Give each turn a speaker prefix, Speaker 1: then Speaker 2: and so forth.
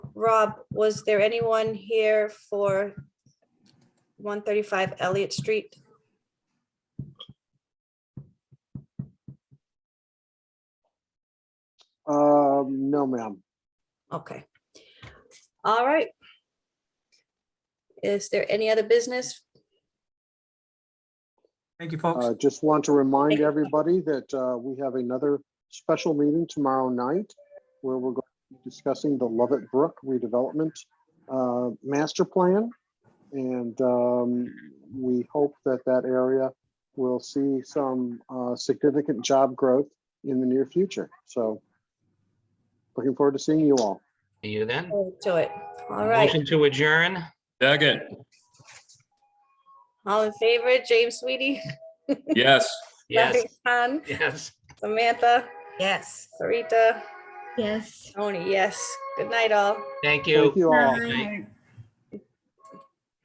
Speaker 1: Rob, was there anyone here for 135 Elliott Street?
Speaker 2: Um, no, ma'am.
Speaker 1: Okay. All right. Is there any other business?
Speaker 3: Thank you, folks.
Speaker 2: Uh, just want to
Speaker 1: Thank
Speaker 2: remind
Speaker 1: you.
Speaker 2: everybody that, uh, we have another special meeting tomorrow night where we're going to be discussing the Lovett Brook redevelopment, uh, master plan. And, um, we hope that that area will see some, uh, significant job growth in the near future. So looking forward to seeing you all.
Speaker 4: See you then.
Speaker 1: To it. All right.
Speaker 4: Motion to adjourn.
Speaker 5: Second,
Speaker 1: All in favor, James Sweetie?
Speaker 5: yes.
Speaker 4: Yes,
Speaker 1: Larry Khan,
Speaker 4: yes.
Speaker 1: Samantha,
Speaker 6: Yes.
Speaker 1: Sarita,
Speaker 7: Yes.
Speaker 1: Tony, yes. Good night, all.
Speaker 4: Thank you.
Speaker 2: Thank you all.
Speaker 7: Bye.
Speaker 4: Bye.